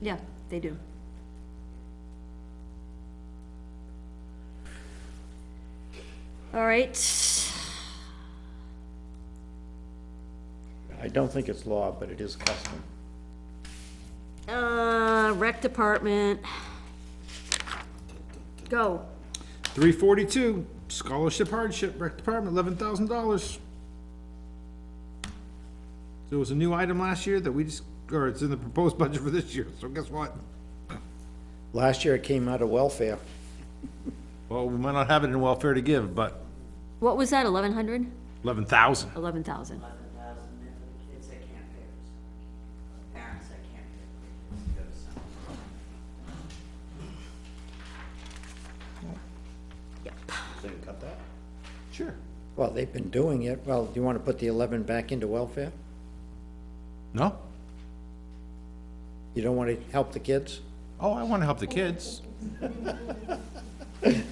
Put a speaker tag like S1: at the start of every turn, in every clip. S1: Yeah, they do. All right,
S2: I don't think it's law, but it is custom.
S1: uh, rec department. Go.
S3: Three forty-two, scholarship hardship, rec department, eleven thousand dollars. There was a new item last year that we just, or it's in the proposed budget for this year, so guess what?
S2: Last year it came out of welfare.
S3: Well, we might not have it in welfare to give, but
S1: What was that, eleven hundred?
S3: eleven thousand.
S1: Eleven thousand.
S4: eleven thousand, and for the kids that can't pay for summer camp, parents that can't pay for their kids to go to summer camp.
S2: They can cut that?
S3: Sure.
S2: Well, they've been doing it. Well, do you want to put the eleven back into welfare?
S3: No?
S2: You don't want to help the kids?
S3: Oh, I wanna help the kids.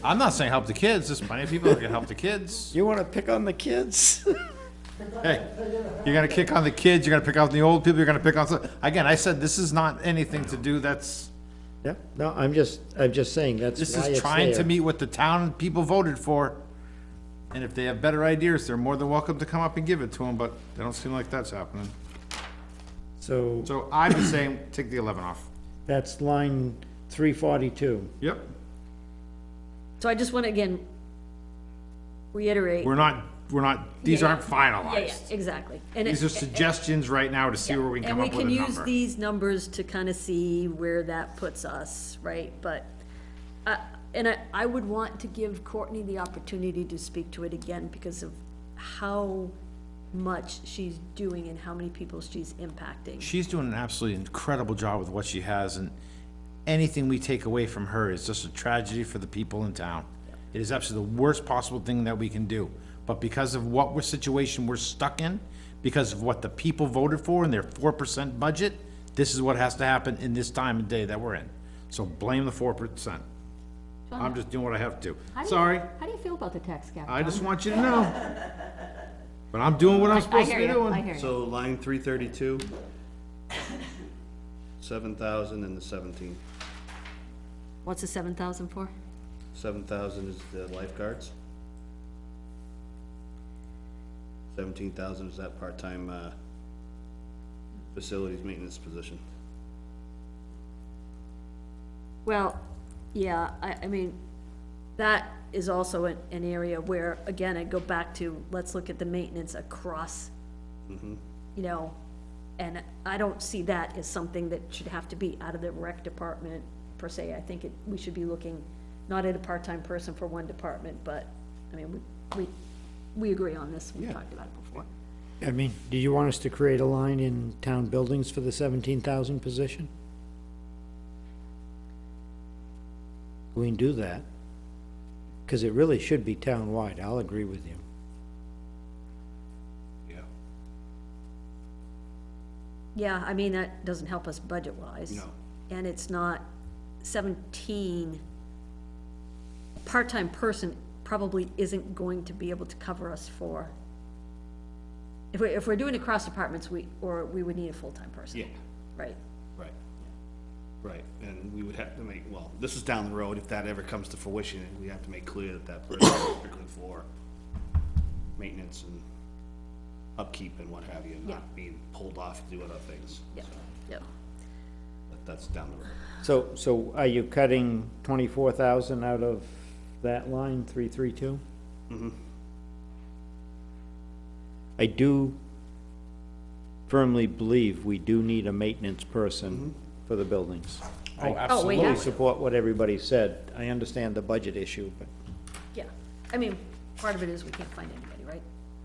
S3: I'm not saying help the kids, there's plenty of people that can help the kids.
S2: You want to pick on the kids?
S3: Hey, you're gonna kick on the kids, you're gonna pick on the old people, you're gonna pick on, some- again, I said, this is not anything to do, that's,
S2: Yeah, no, I'm just, I'm just saying, that's
S3: this
S2: why
S3: is
S2: it's
S3: trying to
S2: there.
S3: meet what the town people voted for. And if they have better ideas, they're more than welcome to come up and give it to them, but they don't seem like that's happening.
S2: So
S3: So I'm just saying, take the eleven off.
S2: that's line three forty-two.
S3: Yep,
S1: So I just wanna again reiterate.
S3: we're not, we're not, these
S1: Yeah,
S3: aren't
S1: Yeah, yeah,
S3: finalized.
S1: exactly. And it-
S3: These are suggestions right now to see where we can come up with a
S1: And we can use
S3: number.
S1: these numbers to kind of see where that puts us, right? But, uh, and I, I would want to give Courtney the opportunity to speak to it again because of how much she's doing and how many people she's impacting.
S3: She's doing an absolutely incredible job with what she has, and anything we take away from her is just a tragedy for the people in town. It is absolutely the worst possible thing that we can do, but because of what we're, situation we're stuck in, because of what the people voted for and their four percent budget, this is what has to happen in this time and day that we're in. So blame the four percent. I'm just doing what I have to. Sorry,
S1: How do you feel about the tax cap?
S3: I just want you to know. But I'm doing what I'm supposed to be doing.
S5: So line three thirty-two, seven thousand and the seventeen.
S1: What's the seven thousand for?
S5: Seven thousand is the lifeguards. Seventeen thousand is that part-time, uh, facilities maintenance position.
S1: Well, yeah, I, I mean, that is also an, an area where, again, I go back to, let's look at the maintenance across, you know, and I don't see that as something that should have to be out of the rec department per se. I think it, we should be looking not at a part-time person for one department, but, I mean, we, we, we agree on this, we talked about it before.
S2: I mean, do you want us to create a line in town buildings for the seventeen thousand position? We can do that, because it really should be town-wide, I'll agree with you.
S1: Yeah, I mean, that doesn't help us budget-wise.
S5: No.
S1: And it's not seventeen, a part-time person probably isn't going to be able to cover us for. If we, if we're doing across departments, we, or we would need a full-time person.
S5: Yeah.
S1: Right,
S5: Right. Right, and we would have to make, well, this is down the road, if that ever comes to fruition, we have to make clear that that person is strictly for maintenance and upkeep and what have you,
S1: Yeah.
S5: not being pulled off to do other things.
S1: yeah,
S5: So,
S1: yeah.
S5: But that's down the road.
S2: So, so are you cutting twenty-four thousand out of that line, three-three-two? I do firmly believe we do need a maintenance person for the buildings.
S3: Oh,
S1: Oh, we
S2: Fully
S1: have, to.
S2: support what everybody said. I understand the budget issue, but
S1: yeah. I mean, part of it is we can't find anybody, right?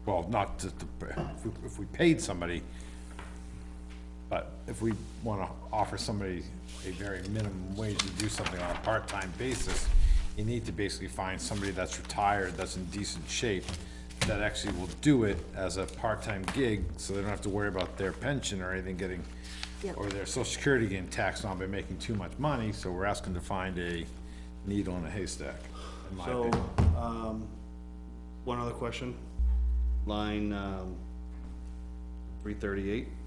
S3: Well, not to, to- if we- if we paid somebody, but if we want to offer somebody a very minimum wage to do something on a part-time basis, you need to basically find somebody that's retired, that's in decent shape, that actually will do it as a part-time gig, so they don't have to worry about their pension or anything getting,
S1: Yep.
S3: or their social security getting taxed on by making too much money, so we're asking to find a needle in a haystack, in my
S5: So,
S3: opinion.
S5: um, one other question. Line, um, three thirty-eight.